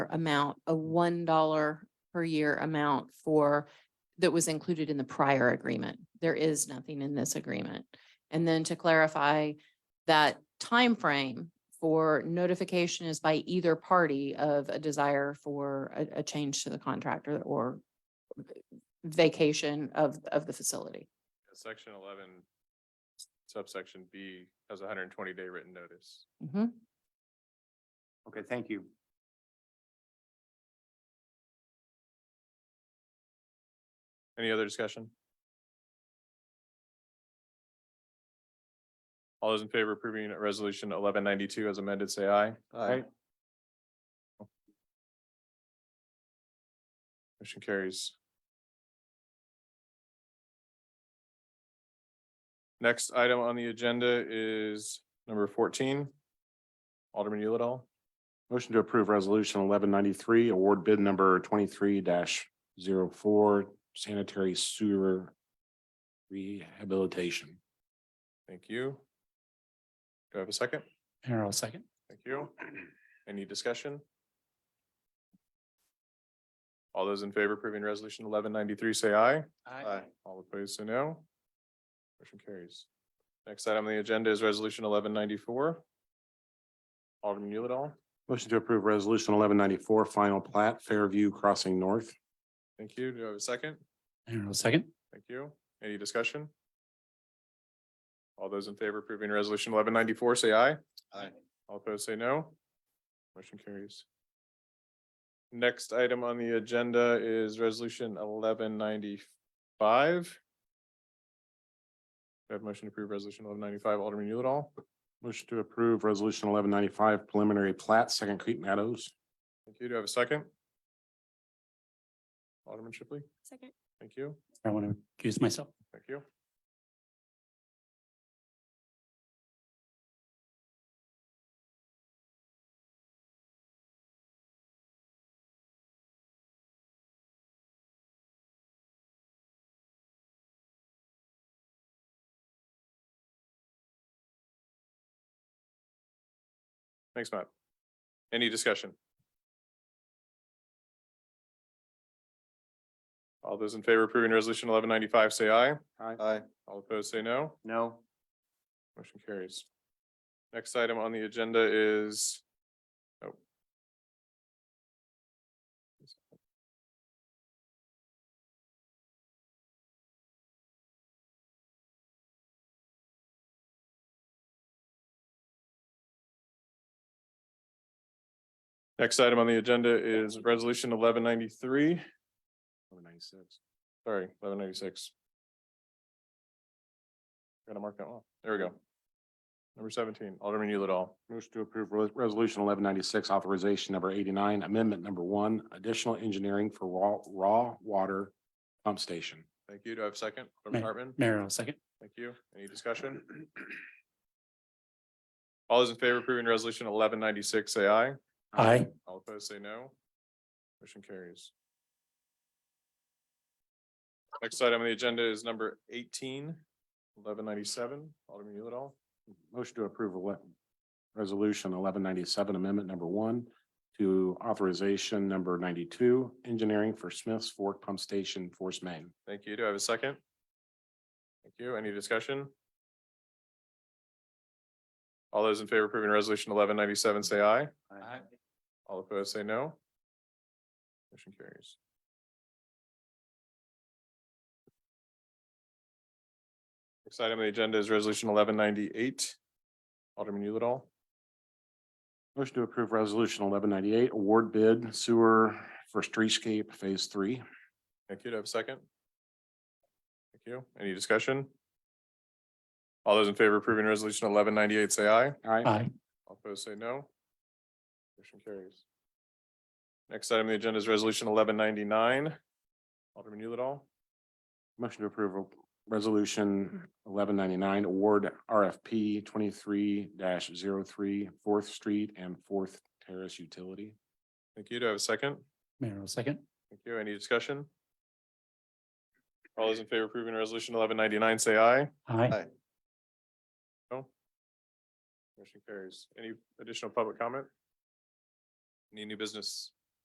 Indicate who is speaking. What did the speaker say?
Speaker 1: amount, a one dollar per year amount for, that was included in the prior agreement. There is nothing in this agreement. And then to clarify, that time frame for notification is by either party of a desire for a, a change to the contractor or vacation of, of the facility.
Speaker 2: Section eleven subsection B has a hundred and twenty day written notice.
Speaker 1: Mhm.
Speaker 3: Okay, thank you.
Speaker 2: Any other discussion? All those in favor of approving resolution eleven ninety-two as amended, say aye.
Speaker 3: Aye.
Speaker 2: Motion carries. Next item on the agenda is number fourteen. Alderman Yulidol.
Speaker 4: Motion to approve resolution eleven ninety-three, award bid number twenty-three 4 sanitary sewer rehabilitation.
Speaker 2: Thank you. Do I have a second?
Speaker 4: Harold, second.
Speaker 2: Thank you. Any discussion? All those in favor approving resolution eleven ninety-three, say aye.
Speaker 3: Aye.
Speaker 2: All opposed, say no. Motion carries. Next item on the agenda is resolution eleven ninety-four. Alderman Yulidol,
Speaker 4: Motion to approve resolution eleven ninety-four, final plat Fairview Crossing North.
Speaker 2: thank you. Do I have a second?
Speaker 4: Harold, second.
Speaker 2: Thank you. Any discussion? All those in favor approving resolution eleven ninety-four, say aye.
Speaker 3: Aye.
Speaker 2: All opposed, say no. Motion carries. Next item on the agenda is resolution eleven ninety-five. Do I have a motion to approve resolution eleven ninety-five, Alderman Yulidol?
Speaker 4: Motion to approve resolution eleven ninety-five, preliminary plat, Second Creek Meadows.
Speaker 2: Thank you. Do I have a second? Alderman Shipley,
Speaker 1: Second.
Speaker 2: thank you.
Speaker 5: I want to accuse myself.
Speaker 2: Thank you. Thanks, Matt. Any discussion? All those in favor approving resolution eleven ninety-five, say aye.
Speaker 3: Aye.
Speaker 2: All opposed, say no.
Speaker 3: No,
Speaker 2: Motion carries. Next item on the agenda is. oh. Next item on the agenda is resolution eleven ninety-three,
Speaker 4: Eleven ninety-six.
Speaker 2: sorry, eleven ninety-six. Gotta mark that one. off. There we go. Number seventeen, Alderman Yulidol.
Speaker 4: Motion to approve Re- resolution eleven ninety-six, authorization number eighty-nine, amendment number one, additional engineering for raw, raw water pump station.
Speaker 2: Thank you. Do I have a second? Alderman
Speaker 5: Ma-
Speaker 2: Hartman,
Speaker 5: Mayor, I'll second.
Speaker 2: thank you. Any discussion? All those in favor of approving resolution eleven ninety-six, say aye.
Speaker 5: Aye.
Speaker 2: All opposed, say no. Motion carries. Next item on the agenda is number 18, 1197. Alderman Yulidol.
Speaker 4: Motion to approve ele- resolution eleven ninety-seven, amendment number one to authorization number ninety-two, engineering for Smith's Fork Pump Station, Force Main.
Speaker 2: Thank you. Do I have a second? Thank you. Any discussion? All those in favor of approving resolution eleven ninety-seven, say aye.
Speaker 3: Aye.
Speaker 2: All opposed, say no. Motion carries. Next item on the agenda is resolution eleven ninety-eight. Alderman Yulidol,
Speaker 4: Motion to approve resolution eleven ninety-eight, award bid sewer for streetscape phase three.
Speaker 2: thank you. Do I have a second? Thank you. Any discussion? All those in favor of approving resolution eleven ninety-eight, say aye.
Speaker 4: Aye.
Speaker 5: Aye.
Speaker 2: All opposed, say no. Motion carries. Next item on the agenda is resolution eleven ninety-nine. Alderman Yulidol,
Speaker 4: Motion to approve of resolution eleven ninety-nine, award RFP twenty-three 3 Fourth Street and Fourth Terrace Utility.
Speaker 2: thank you. Do I have a second?
Speaker 5: Mayor, I'll second.
Speaker 2: Thank you. Any discussion? All those in favor of approving resolution eleven ninety-nine, say aye.
Speaker 5: Aye.
Speaker 3: Aye.
Speaker 2: Motion carries. Any additional public comment? Any new business?